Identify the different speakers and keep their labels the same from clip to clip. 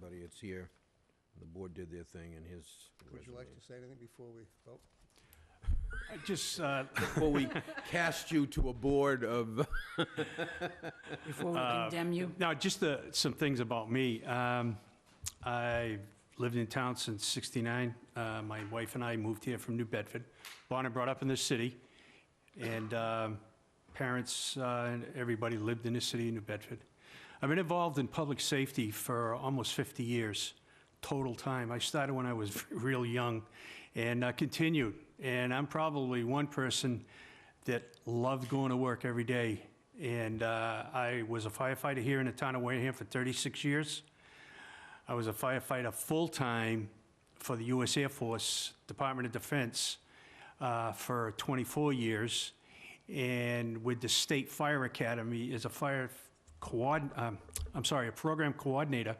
Speaker 1: delegates here. The board did their thing and his
Speaker 2: Would you like to say anything before we vote?
Speaker 3: I just, uh,
Speaker 1: Before we cast you to a board of,
Speaker 4: Before we condemn you,
Speaker 3: now, just uh, some things about me. Um, I lived in town since 69. Uh, My wife and I moved here from New Bedford. Born and brought up in this city, and um, parents uh, and everybody lived in the city of New Bedford. I've been involved in public safety for almost 50 years, total time. I started when I was real young and uh, continued. And I'm probably one person that loved going to work every day. And uh, I was a firefighter here in the town of Wareham for 36 years. I was a firefighter full-time for the U.S. Air Force, Department of Defense, uh, for 24 years, and with the State Fire Academy as a fire coord, um, I'm sorry, a program coordinator,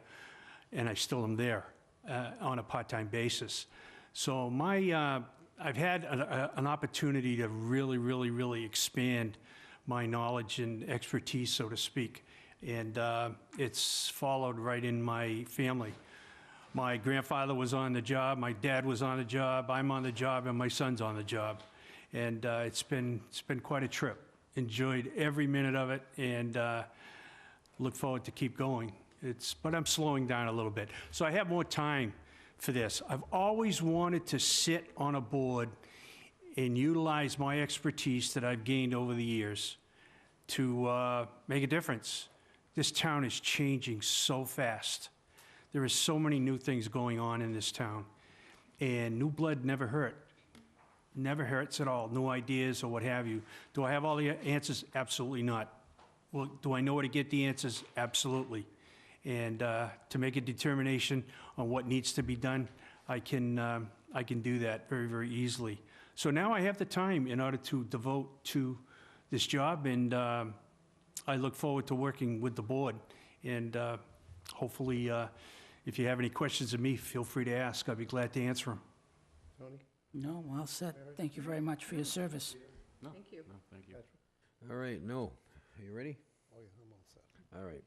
Speaker 3: and I still am there uh, on a part-time basis. So my, uh, I've had a- a- an opportunity to really, really, really expand my knowledge and expertise, so to speak, and uh, it's followed right in my family. My grandfather was on the job, my dad was on the job, I'm on the job, and my son's on the job. And uh, it's been, it's been quite a trip. Enjoyed every minute of it and uh, look forward to keep going. It's, but I'm slowing down a little bit. So I have more time for this. I've always wanted to sit on a board and utilize my expertise that I've gained over the years to uh, make a difference. This town is changing so fast. There is so many new things going on in this town, and new blood never hurt. Never hurts at all, new ideas or what have you. Do I have all the answers? Absolutely not. Well, do I know where to get the answers? Absolutely. And uh, to make a determination on what needs to be done, I can, um, I can do that very, very easily. So now I have the time in order to devote to this job, and um, I look forward to working with the board. And uh, hopefully, uh, if you have any questions of me, feel free to ask. I'd be glad to answer them.
Speaker 2: Tony?
Speaker 4: no, well said. Thank you very much for your service.
Speaker 5: Thank you.
Speaker 1: all right, no. Are you ready?
Speaker 2: Oh, yeah, I'm all set.
Speaker 1: All right.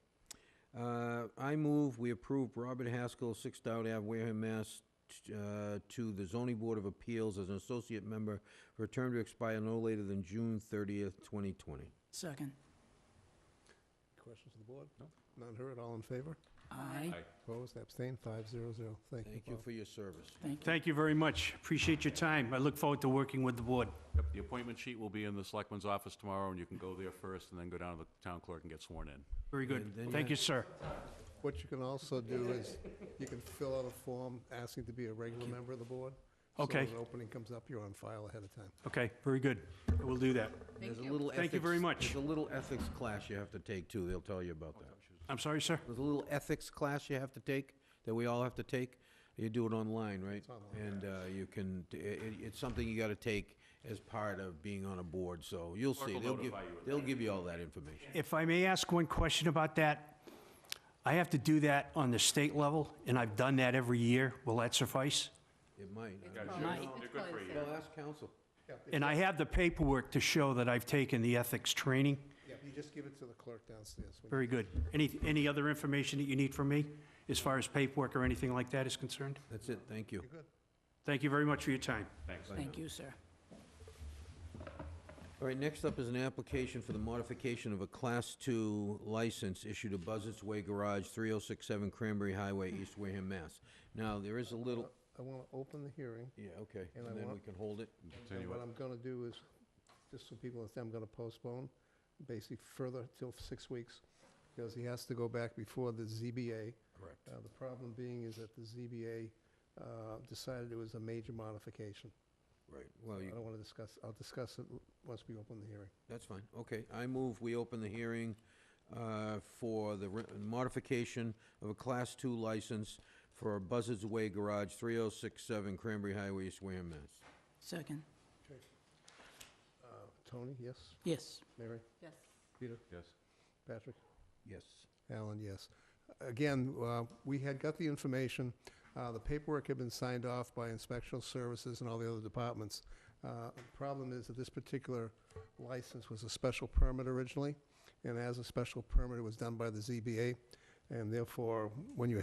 Speaker 1: Uh, I move we approve Robert Haskell, 6 Dowd Ave, Wareham, Mass, t- uh, to the zoning board of appeals as an associate member for a term to expire no later than June 30th, 2020.
Speaker 4: Second.
Speaker 2: Questions to the board? No. None heard, all in favor?
Speaker 4: Aye.
Speaker 2: Opposed, abstained, five zero zero. Thank you,
Speaker 1: Thank you
Speaker 2: Bob.
Speaker 1: for your service.
Speaker 4: Thank you.
Speaker 3: Thank you very much. Appreciate your time. I look forward to working with the board.
Speaker 5: Yep, the appointment sheet will be in the selectman's office tomorrow, and you can go there first and then go down to the town clerk and get sworn in.
Speaker 3: Very
Speaker 1: And then
Speaker 3: good. Thank
Speaker 1: you-
Speaker 3: you, sir.
Speaker 2: What you can also do is, you can fill out a form asking to be a regular member of the board. So
Speaker 3: Okay.
Speaker 2: when an opening comes up, you're on file ahead of time.
Speaker 3: Okay, very good. We'll do that.
Speaker 1: There's a little
Speaker 3: Thank you very
Speaker 1: ethics-
Speaker 3: much.
Speaker 1: There's a little ethics class you have to take, too. They'll tell you about that.
Speaker 3: I'm sorry, sir?
Speaker 1: There's a little ethics class you have to take, that we all have to take. You do it online, right?
Speaker 2: online,
Speaker 1: And uh, you can, i- i- it's something you got to take as part of being on a board, so you'll see.
Speaker 5: will
Speaker 1: They'll give,
Speaker 5: notify you of
Speaker 1: they'll give you all that information.
Speaker 3: If I may ask one question about that, I have to do that on the state level, and I've done that every year. Will that suffice?
Speaker 1: It might. I don't know.
Speaker 4: Aye.
Speaker 5: They're good for you.
Speaker 1: Well, ask council.
Speaker 3: And I have the paperwork to show that I've taken the ethics training.
Speaker 2: Yeah, you just give it to the clerk downstairs. when you-
Speaker 3: Very good. Any, any other information that you need from me as far as paperwork or anything like that is concerned?
Speaker 1: That's it, thank you.
Speaker 2: You're good.
Speaker 3: Thank you very much for your time.
Speaker 5: Thanks.
Speaker 4: Thank you, sir.
Speaker 1: All right, next up is an application for the modification of a Class II license issued to Buzzards Way Garage, 3067 Cranberry Highway, East Wareham, Mass. Now, there is a little,
Speaker 2: I want to open the hearing.
Speaker 1: yeah, okay,
Speaker 2: And
Speaker 1: and
Speaker 2: I
Speaker 1: then we
Speaker 2: want-
Speaker 1: can hold it.
Speaker 2: And what I'm gonna do is, just so people understand, I'm gonna postpone basically further till six weeks, because he has to go back before the ZBA.
Speaker 1: Correct.
Speaker 2: Uh, The problem being is that the ZBA uh, decided it was a major modification.
Speaker 1: Right, well,
Speaker 2: I
Speaker 1: you
Speaker 2: don't wanna discuss, I'll discuss it l- once we open the hearing.
Speaker 1: That's fine, okay. I move we open the hearing uh, for the re- modification of a Class II license for Buzzards Way Garage, 3067 Cranberry Highway, East Wareham, Mass.
Speaker 4: Second.
Speaker 2: Uh, Tony, yes?
Speaker 4: Yes.
Speaker 2: Mary?
Speaker 5: Yes.
Speaker 2: Peter?
Speaker 5: Yes.
Speaker 2: Patrick?
Speaker 1: Yes.
Speaker 2: Alan, yes. Again, uh, we had got the information, uh, the paperwork had been signed off by inspectional services and all the other departments. Uh, The Problem is that this particular license was a special permit originally, and as a special permit, it was done by the ZBA, and therefore, when you